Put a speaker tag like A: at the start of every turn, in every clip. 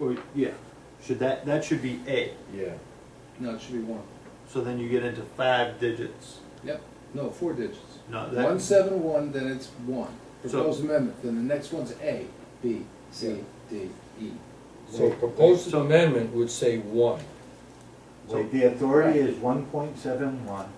A: Or, yeah, should that, that should be A.
B: Yeah.
C: No, it should be one.
A: So then you get into five digits.
C: Yep, no, four digits.
A: No, Uh, that,
C: One seven one, then it's one.
A: So-
C: Proposed amendment, then the next one's A, B, C, D, E.
D: So proposed amendment would say one.
B: Wait, the authority is one point seven one,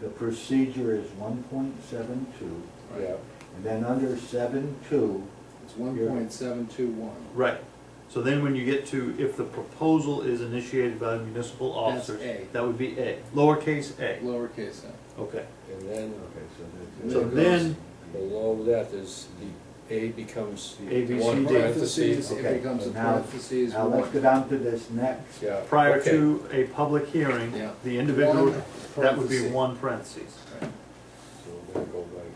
B: the procedure is one point seven two,
C: Right.
B: and then under seven two,
C: It's one point seven two one.
A: right. So then when you get to, if the proposal is initiated by the municipal
C: That's
A: officers,
C: A.
A: that would be A, lowercase a.
C: Lowercase a.
A: Okay,
D: And then
B: okay, so
A: so
C: There it
A: then,
D: below that is the, A becomes
A: A, B,
D: the
A: C,
D: one
A: D.
D: parentheses.
C: It
B: Okay,
C: becomes a
B: now-
C: parentheses
B: Now let's go
C: one.
B: down to this next.
D: Yeah,
A: prior
D: okay.
A: to a public hearing,
C: Yeah.
A: the individual,
C: One
A: that would be
C: parentheses.
A: one parentheses.
C: Right.
D: So then go like.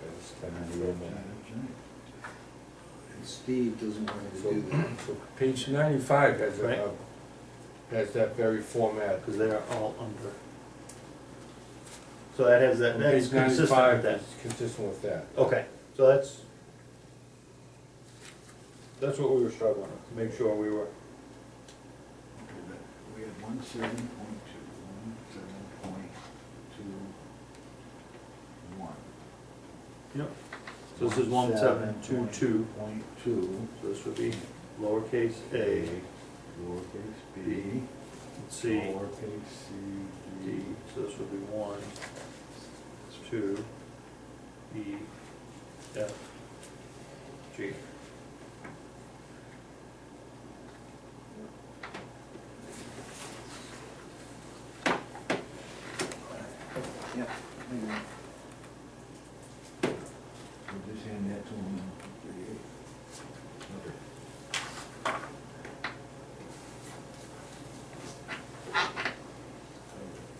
D: that's kind of the amendment.
C: Steve doesn't want me to
D: So,
C: do that.
D: so page ninety-five has
A: Right.
D: a, uh, has that very format.
A: Because they are all under. So that has that, that's
D: Page
A: consistent
D: ninety-five
A: with that.
D: is Consistent with that.
A: Okay, so that's, that's what we were struggling with, to make sure we were.
B: We have one seven point two, one seven point two, one.
A: Yep. So this is one seven two two,
B: Point two,
A: so this would be lowercase a,
B: lowercase b,
A: c,
B: lowercase c,
A: d,
B: d,
A: so this would be one, two, e, f, g.
C: Yeah. maybe not.
B: We'll just hand that to him.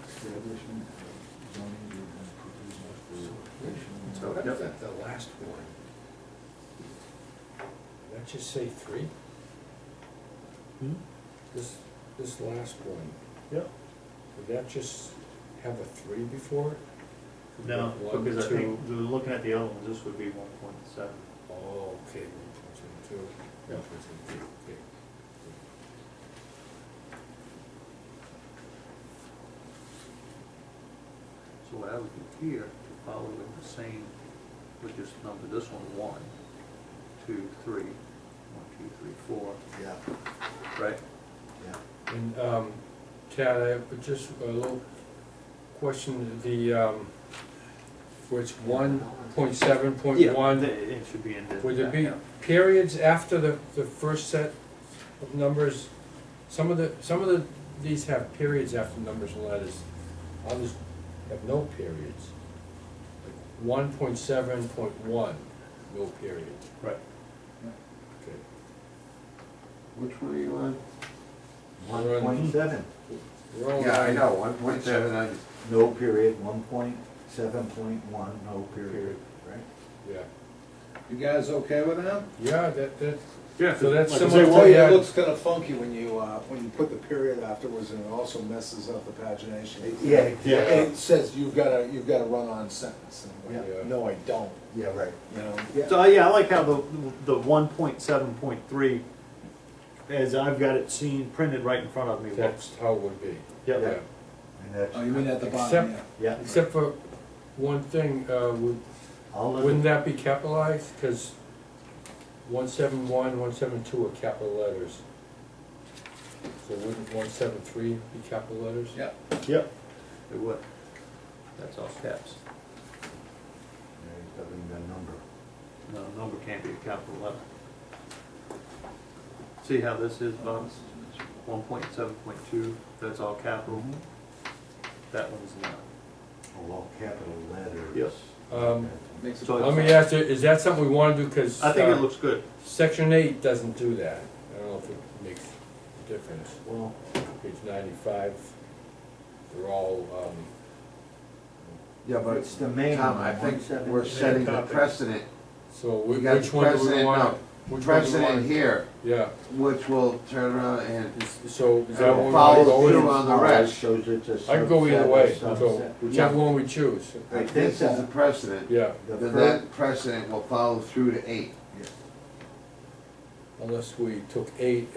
B: Establishment of zoning and provisional
D: So
B: jurisdiction.
D: that, that- the last one. Did that just say three?
A: Hmm?
D: This, this last one,
A: Yep.
D: did that just have a three before? it?
A: No,
D: One,
A: because I
D: two.
A: think, we were looking at the other ones, this would be one point seven.
D: Oh, okay, one, two, two,
A: Yeah.
D: one, two, two, okay.
A: So what I would do here, to follow in the same, would just number this one one, two, three, one, two, three, four,
B: Yeah,
A: right?
B: yeah.
D: And, um, Tad, I have just a little question, the, um, where it's one point seven, point one.
A: It it should be in the.
D: Would there be
A: yeah.
D: periods after the, the first set of numbers? Some of the, some of the, these have periods after numbers and letters, others have no periods. Like one point seven point one, no period.
A: Right,
D: Okay.
E: Which one are you on?
B: One point seven,
D: We're all
E: Oh, Yeah, I
D: right.
E: know, one point seven, I just,
B: no period, one point seven point one, no period,
D: Period.
B: right?
D: Yeah,
C: You guys okay with that?
D: yeah, that, that,
A: yeah,
D: so that's
A: like I say,
D: similar to
F: Well, yeah,
D: the-
F: it looks kind of funky when you, uh, when you put the period afterwards, and it also messes up the pagination.
B: Yeah,
A: Yeah.
F: And it says you've got a, you've got a run-on sentence, and I'm
D: Yeah.
F: like, no, I don't,
B: yeah, right.
F: you know?
A: So, yeah, I like how the, the one point seven point three, as I've got it seen printed right in front of me, looks.
D: that's how it would be.
A: Yep.
D: Yeah.
B: And that's,
C: Oh, you mean at the
D: Except-
C: bottom, yeah.
B: yeah,
D: Except for one thing, uh, would,
B: I'll look.
D: Wouldn't that be capitalized? Because one seven one, one seven two are capital letters. So wouldn't one seven three be capital letters?
C: Yeah.
A: Yep. It would. That's all caps.
B: There's nothing the number.
A: No, number can't be a capital letter. See how this is, Bob? One point seven point two, that's all capital. That one's not.
B: Oh, all capital letters.
A: Mm-hmm. Yes.
D: Um,
C: Makes it.
A: So
D: Let me ask you, is that something we wanna do? Because
A: I think it looks good.
D: section eight doesn't do that. I don't know if it makes a difference.
B: Well,
D: Page ninety-five, they're all, um,
B: yeah, but it's the main
E: Tom, I
B: one,
E: think
B: one seven.
E: we're setting the
F: topic.
E: precedent,
D: so
E: We
D: whi-
E: got
D: which one do we
E: precedent,
D: want?
E: no. precedent here,
D: Yeah,
E: which will turn around and,
D: so is that
E: Uh,
D: what we
E: follow
D: wanna
B: All
E: the
D: go
E: through
D: with?
E: on the
B: all
E: rest.
B: Shows it's a subset.
D: I can go either
B: a
D: way,
B: subset.
D: so whichever one we choose,
B: I think
E: this is the
B: that,
E: precedent.
D: yeah.
B: the
E: Then
B: fir-
E: that precedent will follow through to eight.
D: unless we took eight